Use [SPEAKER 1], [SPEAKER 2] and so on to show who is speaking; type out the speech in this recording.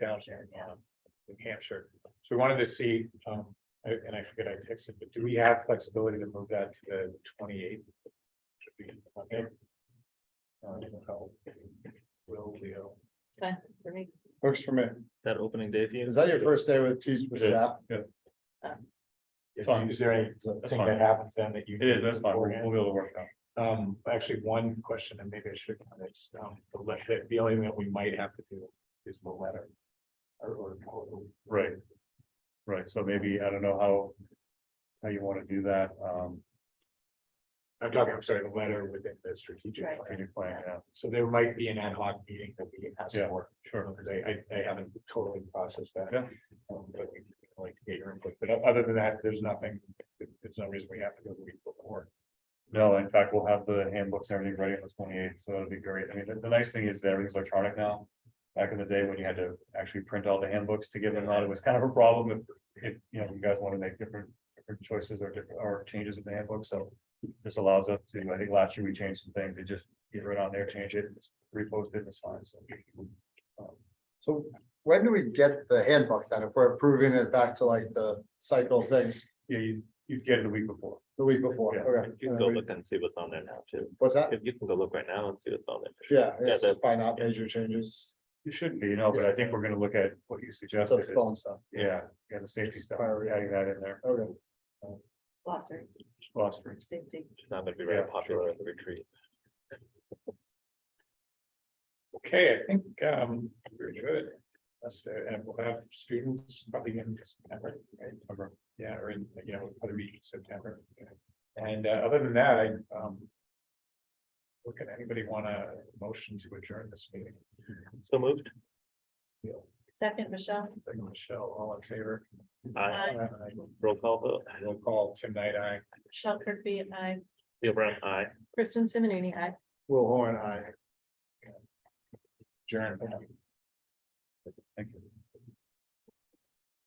[SPEAKER 1] down here in um, New Hampshire. So we wanted to see, um, I- and I forget I texted, but do we have flexibility to move that to the twenty eighth? Should be Monday. Uh, how Will Leo.
[SPEAKER 2] It's fine for me.
[SPEAKER 3] Works for me.
[SPEAKER 4] That opening day for you?
[SPEAKER 3] Is that your first day with teach with
[SPEAKER 5] Yeah.
[SPEAKER 3] staff?
[SPEAKER 1] If you- Is there anything that happens then that you?
[SPEAKER 5] It is, that's fine. We'll we'll be able to work it out.
[SPEAKER 1] Um, actually, one question, and maybe I should, it's, um, the letter, the only thing that we might have to do is the letter. Or, or, or-
[SPEAKER 5] Right. Right, so maybe, I don't know how. How you wanna do that, um,
[SPEAKER 1] I'm talking, I'm sorry, the letter within the strategic
[SPEAKER 2] Right.
[SPEAKER 1] plan.
[SPEAKER 5] strategic plan, yeah,
[SPEAKER 1] So there might be an ad hoc meeting that we have
[SPEAKER 5] Yeah,
[SPEAKER 1] to work,
[SPEAKER 5] sure.
[SPEAKER 1] because I, I, I haven't totally processed that.
[SPEAKER 5] Yeah.
[SPEAKER 1] Um, But we like to get your input, but other than that, there's nothing, there's no reason we have to go the week before.
[SPEAKER 5] No, in fact, we'll have the handbooks and everything ready on the twenty eighth, so that'll be great. I mean, the, the nice thing is that everything's electronic now. Back in the day when you had to actually print all the handbooks to give them out, it was kind of a problem if, if, you know, you guys want to make different, different choices or different, or changes in the handbook, so. This allows us to, I think last year we changed some things, it just get right on there, change it, repost it, it's fine, so. Um,
[SPEAKER 3] So when do we get the handbook then? If we're approving it back to like the cycle of things
[SPEAKER 5] Yeah, you, you'd get it the week before.
[SPEAKER 3] the week before,
[SPEAKER 5] Yeah.
[SPEAKER 3] okay?
[SPEAKER 4] You can
[SPEAKER 3] And
[SPEAKER 4] go
[SPEAKER 3] then we-
[SPEAKER 4] look and see what's on there now too.
[SPEAKER 3] What's that?
[SPEAKER 4] If you can go look right now and see what's on there.
[SPEAKER 3] Yeah,
[SPEAKER 4] Yeah,
[SPEAKER 3] it's
[SPEAKER 4] the-
[SPEAKER 3] by not major changes,
[SPEAKER 5] You shouldn't be, you know, but I think we're gonna look at what you
[SPEAKER 3] the
[SPEAKER 5] suggested.
[SPEAKER 3] phone stuff,
[SPEAKER 5] Yeah, yeah, the safety stuff,
[SPEAKER 3] Priority.
[SPEAKER 5] adding that in there,
[SPEAKER 3] okay.
[SPEAKER 2] Glossary,
[SPEAKER 5] philosophy.
[SPEAKER 2] safety.
[SPEAKER 4] It's not gonna be very
[SPEAKER 5] Yeah.
[SPEAKER 4] popular at the retreat.
[SPEAKER 1] Okay, I think, um, we're good. That's, uh, and we'll have students probably in September, right? Or, Yeah, or in, you know, other meeting in September. And, uh, other than that, I, um. Look, at anybody want a motion to adjourn this meeting?
[SPEAKER 4] So moved.
[SPEAKER 2] Second, Michelle?
[SPEAKER 1] Thank you, Michelle, all in favor?
[SPEAKER 4] Aye.
[SPEAKER 2] Aye.
[SPEAKER 4] Roll call vote.
[SPEAKER 1] We'll call Tim Knight, aye.
[SPEAKER 2] Michelle Kirkby, I.
[SPEAKER 4] Leo Brown, aye.
[SPEAKER 2] Kristen Simonini, I.
[SPEAKER 3] Will Horn, I.
[SPEAKER 1] Adjourn.
[SPEAKER 5] Thank you.